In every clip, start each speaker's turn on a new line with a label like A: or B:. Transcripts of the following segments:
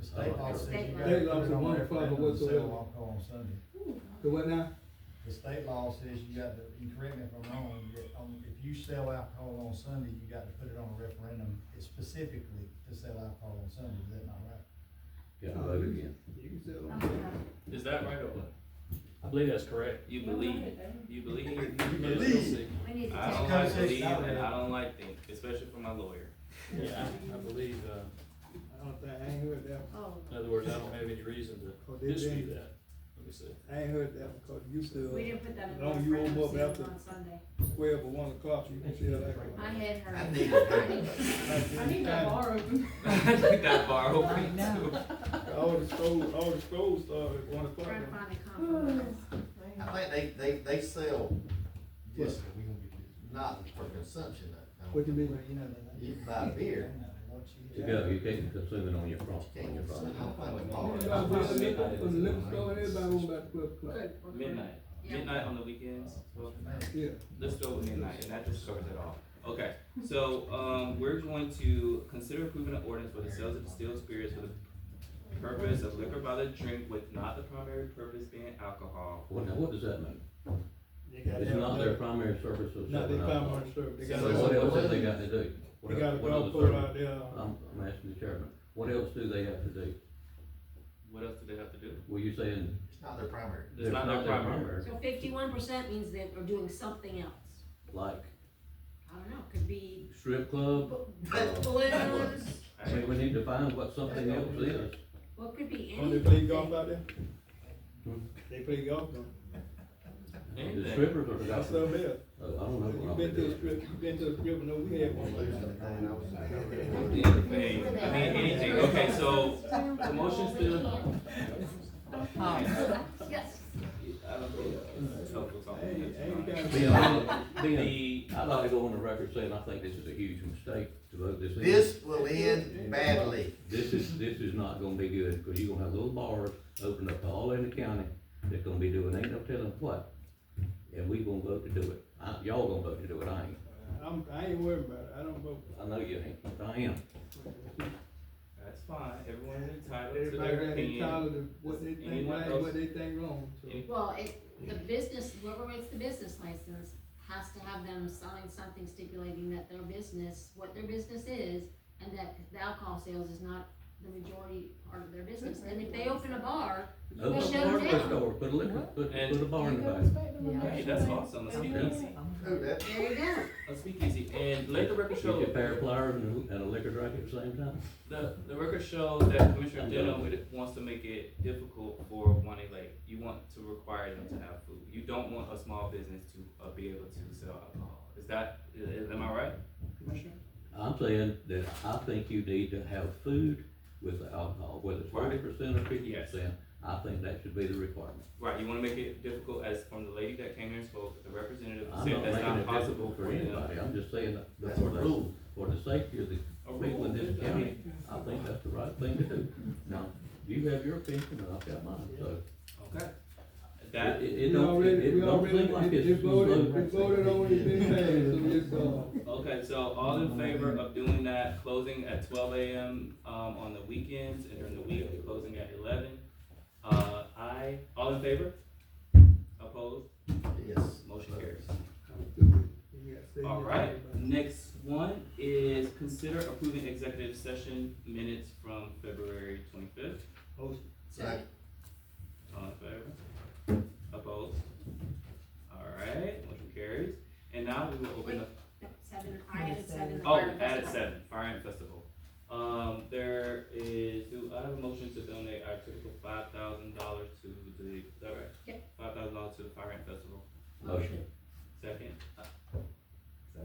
A: state law says
B: State
A: you gotta
B: law.
C: State law
A: put it
C: said
A: on
C: one
A: the
C: to five or
A: referendum and sell
C: whatsoever.
A: alcohol on Sunday.
C: The what now?
A: The state law says you got to, and correct me if I'm wrong, that, um, if you sell alcohol on Sunday, you got to put it on a referendum specifically to sell alcohol on Sunday, is that not right?
D: Got to vote again.
C: You can sell
B: I
C: them.
B: don't know.
E: Is that right or what?
F: I believe that's correct.
D: You believe, you believe.
A: You
D: We'll
A: believe.
D: see.
B: We need to
D: I
B: take
D: don't
A: Just
D: like believe,
A: conversation.
D: and I don't like think, especially for my lawyer.
F: Yeah, I- I believe, uh,
C: I don't think, I ain't heard that one.
B: Oh,
F: in other words, I don't have any reason
C: Oh,
F: to
C: did they?
F: dispute that. Let me see.
C: I ain't heard that one, cause you still,
B: we didn't put that in
C: as
B: the
C: long as you
B: referendum
C: open up
B: sales
C: after
B: on Sunday.
C: twelve or one o'clock, you can sell alcohol.
B: I had her.
A: I
B: I
A: need-
C: Like
G: I need
C: this time,
G: that borrow.
D: I think that borrow
G: Right
D: me
G: now.
D: too.
C: All the schools, all the schools start at one o'clock.
B: Trying to find a compromise.
H: I think they, they, they sell just
A: we gonna get this.
H: not for consumption. I don't
C: What you
H: think.
C: mean?
A: Well, you know, they-
H: You buy beer.
D: To go, you can't consume it on your property, on your property.
I: Oh,
C: From the
D: Midnight
C: liquor
D: is-
C: store, everybody want about twelve o'clock.
B: Good. we're good.
D: Midnight,
B: Yeah.
D: midnight on the weekends, well,
C: Yeah.
D: let's go with midnight, and that just covers it all. Okay, so, um, we're going to consider approving an ordinance for the sales of distilled spirits for the purpose of liquor by the drink with not the primary purpose being alcohol.
I: Well, now, what does that mean?
C: They gotta
I: It's
C: have
I: not
C: that.
I: their primary service of
C: Not
I: selling
C: their
I: alcohol.
C: primary service. They
I: So
C: gotta-
I: what else have they got to do? What
C: They got a
I: else- what other
C: golf course
I: service-
C: out there.
I: I'm, I'm asking the chairman, what else do they have to do?
D: What else do they have to do?
I: Were you saying
H: It's not their primary.
D: It's
I: they're
D: not their primary.
B: So fifty-one percent means that we're doing something else.
I: Like
B: I don't know, could be
I: strip club?
B: bu- balloons,
I: I mean, we need to find what something else is.
B: well, it could be
C: Oh, they play
B: anything.
C: golf out there?
I: Hmm?
C: They play golf, don't
I: The
D: Anything.
I: strippers are
C: they?
I: the
C: That's something else.
I: I don't know.
C: You
I: what
C: been to the
I: I'm doing.
C: strip, you been to the strip, no, we had one like that.
D: Anything, I mean, anything, okay, so, the motion's to,
B: Yes.
D: I don't think it's helpful
C: Hey,
D: talking.
C: hey, you guys-
I: Being, being,
D: The,
I: I'd like to go on the record saying I think this is a huge mistake to vote this in.
H: This will end badly.
I: This is, this is not gonna be good, because you're gonna have little bars opened up all in the county that's gonna be doing, ain't no telling what. And we gonna vote to do it. I, y'all gonna vote to do it, I ain't.
C: I'm, I ain't worried about it, I don't vote.
I: I know you ain't, but I am.
D: that's fine, everyone is entitled to
C: Everybody
D: their
C: got it
D: opinion.
C: tired of what they think
D: Anyone
C: right,
D: else?
C: what they think wrong, so.
D: Any-
B: Well, it, the business, whoever makes the business license has to have them sign something stipulating that their business, what their business is, and that the alcohol sales is not the majority part of their business. And if they open a bar,
I: Open up
B: shut
I: a
B: 'em
I: hardware
B: down.
I: store, put a liquor, put,
D: And-
I: put a bar in the back.
D: Hey, that's awesome, let's speak easy,
H: Who that?
B: there you go.
D: let's speak easy, and let the record
I: Get your
D: show,
I: pair of pliers and a- and a liquor drink at the same time.
D: the, the record shows that Commissioner Denham would- wants to make it difficult for one like, you want to require them to have food. You don't want a small business to, uh, be able to sell alcohol, is that, i- am I right, Commissioner?
I: I'm saying that I think you need to have food with the alcohol, whether it's forty percent or fifty percent. I think that should be the requirement.
D: Right, you wanna make it difficult as from the lady that came here and spoke, the representative
I: I'm
D: said
I: not
D: that's
I: making
D: not
I: it
D: possible
I: possible
D: for
I: for
D: them.
I: anybody, I'm just saying that
H: That's
I: for
H: a
I: the,
H: rule.
I: for the safety of the
D: A rule,
I: people in this
D: I
I: county, I think that's the right thing to do. Now, you have your opinion, and I've got mine, so.
D: Okay.
I: It, it
D: That,
C: We
I: it don't, it-
C: already,
I: it
C: we
I: don't
C: already,
I: seem like
C: they
I: it's.
C: they voted, they
I: voted.
C: voted on it, they passed, so it's, uh,
D: okay, so all in favor of doing that, closing at twelve AM, um, on the weekends and during the week, closing at eleven. Uh, I, all in favor? Opposed?
H: Yes.
D: Motion carries.
C: uh.
D: All right, next one is consider approving executive session minutes from February twenty-fifth.
H: Second.
D: All in favor? Opposed? All right, motion carries. And now we will open up,
B: Seven, I added seven.
D: oh, added seven, Fire Ant Festival. Um, there is, do I have a motion to donate our typical five thousand dollars to the, is that right?
B: Yep.
D: Five thousand dollars to the Fire Ant Festival.
I: Motion.
D: Second? Uh,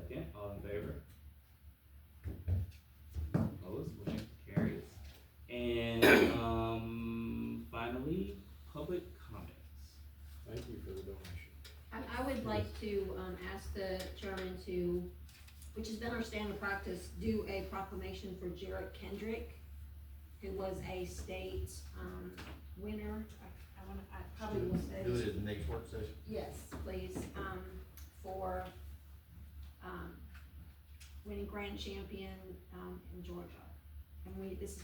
D: Second, all in favor? Opposed, motion carries. And, um, finally, public comments.
E: Thank you for the donation.
B: I, I would like to, um, ask the chairman to, which has been our standard practice, do a proclamation for Jarrett Kendrick, who was a state, um, winner. I, I wanna, I probably will say.
H: Do it at the next work session.
B: Yes, please, um, for, um, winning grand champion, um, in Georgia. And we, this is